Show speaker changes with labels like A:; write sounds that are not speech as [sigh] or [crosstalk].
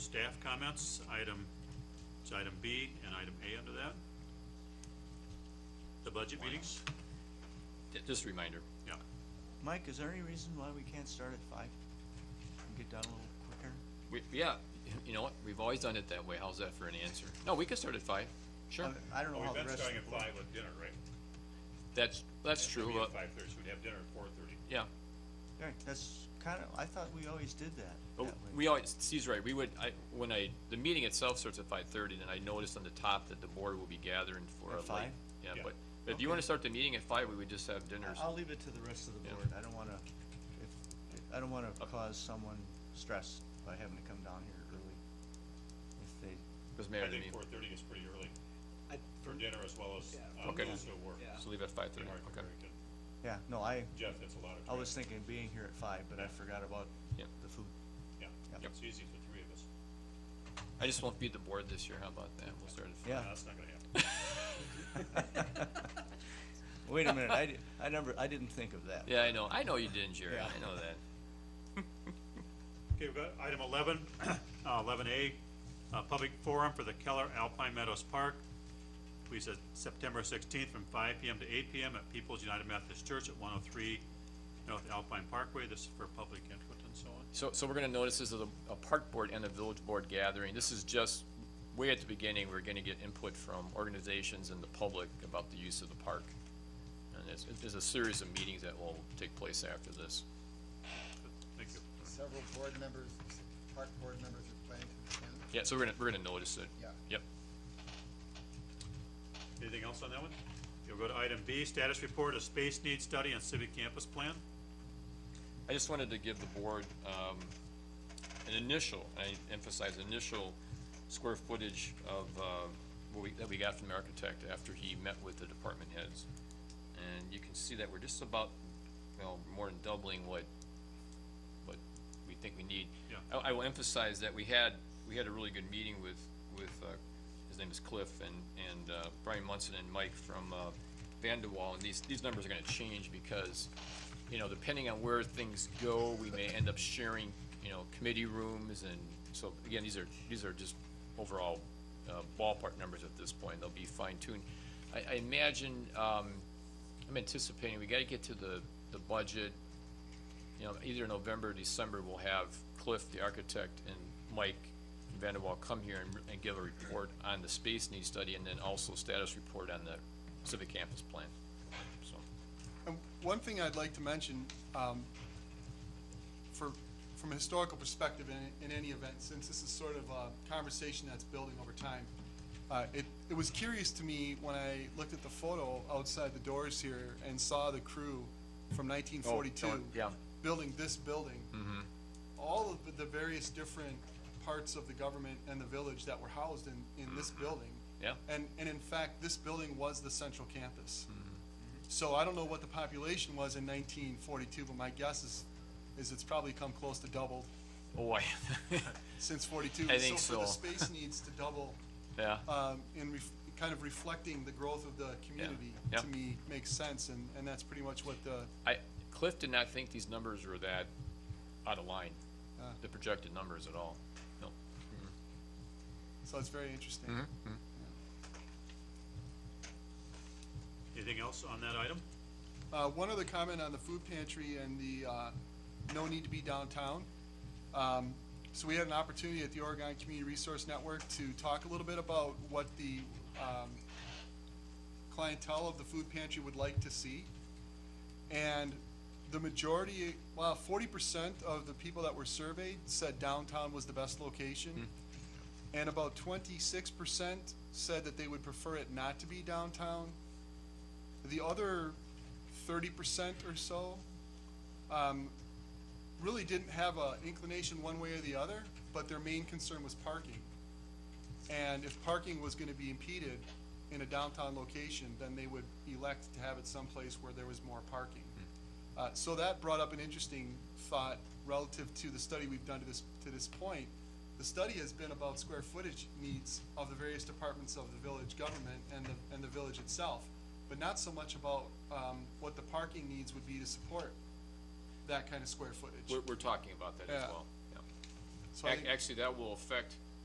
A: staff comments, item, it's item B and item A under that. The budget meetings,
B: Ju- Just a reminder,
A: yeah,
C: Mike, is there any reason why we can't start at five and get done a little quicker?
B: we, yeah, you know what, we've always done it that way, how's that for an answer? No, we could start at five, sure,
C: I- I don't know
D: Well,
C: how
D: we've
C: the
D: been
C: rest,
D: starting at five with dinner, right?
B: that's, that's true,
D: Maybe
B: uh,
D: at five thirty, so we'd have dinner at four thirty.
B: yeah.
C: Right, that's kinda, I thought we always did that.
B: But
C: that way.
B: Oh, we always, Steve's right, we would, I, when I, the meeting itself starts at five thirty, then I noticed on the top that the board will be gathering for a
C: At
B: late.
C: five?
B: Yeah,
D: Yeah.
B: but, but if you wanna start the meeting at five, we would just have dinners.
C: I'll leave it to the rest of the
B: Yeah.
C: board, I don't wanna, if, I don't wanna cause someone stress by having to come down here early. If they,
B: Cause
D: I
B: Mayor, I
D: think
B: mean,
D: four thirty is pretty early
E: I,
D: for dinner as well as,
E: Yeah.
D: um,
B: Okay.
D: also work.
E: Yeah.
B: so leave at five
D: They
B: thirty,
D: aren't
B: okay,
D: very good.
C: yeah, no, I,
D: Jeff, that's a lot of
C: I
D: time.
C: was thinking of being here at five, but I forgot about
B: yeah.
C: the food.
D: Yeah,
C: Yep.
D: it's easy for three of us.
B: I just won't be at the board this year, how about that, we'll start at five.
C: Yeah,
D: No, That's not gonna happen.
C: wait a minute, I, di- I never, I didn't think of that.
B: Yeah, I know, I know you didn't, Jerry,
C: Yeah.
B: I know that.
A: Okay, we've got item eleven, [clears throat] eleven A, uh, public forum for the Keller Alpine Meadows Park. We said September sixteenth from five PM to eight PM at People's United Methodist Church at one oh three North Alpine Parkway. This is for public input and so on.
B: So, so we're gonna notice this is a, a park board and a village board gathering. This is just, way at the beginning, we're gonna get input from organizations and the public about the use of the park. And it's, it's a series of meetings that will take place after this.
A: Thank you.
F: several board members, park board members are planning to attend.
B: Yeah, so we're gonna, we're gonna notice it.
F: Yeah.
B: Yep.
A: Anything else on that one? You'll go to item B, status report of space needs study and civic campus plan.
B: I just wanted to give the board, um, an initial, I emphasize initial square footage of, uh, what we, that we got from the architect after he met with the department heads. And you can see that we're just about, you know, more than doubling what, what we think we need.
A: Yeah.
B: I, I will emphasize that we had, we had a really good meeting with, with, uh, his name is Cliff and, and, uh, Brian Munson and Mike from, uh, Vandewall, and these, these numbers are gonna change because, you know, depending on where things go, we may end up sharing, you know, committee rooms and, so, again, these are, these are just overall, uh, ballpark numbers at this point, they'll be fine tuned. I, I imagine, um, I'm anticipating, we gotta get to the, the budget, you know, either November, or December, we'll have Cliff, the architect, and Mike Vanderwall come here and, and give a report on the space needs study, and then also status report on the civic campus plan, so.
G: And one thing I'd like to mention, um, for, from a historical perspective in, in any event, since this is sort of a conversation that's building over time, uh, it, it was curious to me when I looked at the photo outside the doors here and saw the crew from nineteen forty-two.
B: Oh, yeah. Mm-hmm.
G: Building this building. All of the various different parts of the government and the village that were housed in, in this building.
B: Mm-hmm. Yeah.
G: And, and in fact, this building was the central campus. So I don't know what the population was in nineteen forty-two, but my guess is, is it's probably come close to doubled
B: Boy,
G: since forty-two.
B: I think
G: for
B: so. [laughs]
G: the space needs to double,
B: yeah,
G: um, in ref, kind of reflecting the growth of the community,
B: Yeah.
G: to me, makes sense, and, and that's pretty much what uh, the,
B: I, Cliff did not think these numbers were that out of line, the projected numbers at all, no.
G: so it's very interesting.
B: Mm-hmm.
A: Anything else on that item?
G: Uh, one other comment on the food pantry and the, uh, no need to be downtown. Um, so we had an opportunity at the Oregon Community Resource Network to talk a little bit about what the, um, clientele of the food pantry would like to see. And the majority, well, forty percent of the people that were surveyed said downtown was the best location. And about twenty-six percent said that they would prefer it not to be downtown. The other thirty percent or so, um, really didn't have a inclination one way or the other, but their main concern was parking. And if parking was gonna be impeded in a downtown location, then they would elect to have it someplace where there was more parking. Uh, so that brought up an interesting thought relative to the study we've done to this, to this point. The study has been about square footage needs of the various departments of the village government and the, and the village itself, but not so much about, um, what the parking needs would be to support that kind of square footage.
B: We're, we're talking about that as
G: Yeah.
B: well, yeah.
G: So I
B: Ac-
G: think-
B: Actually, that will affect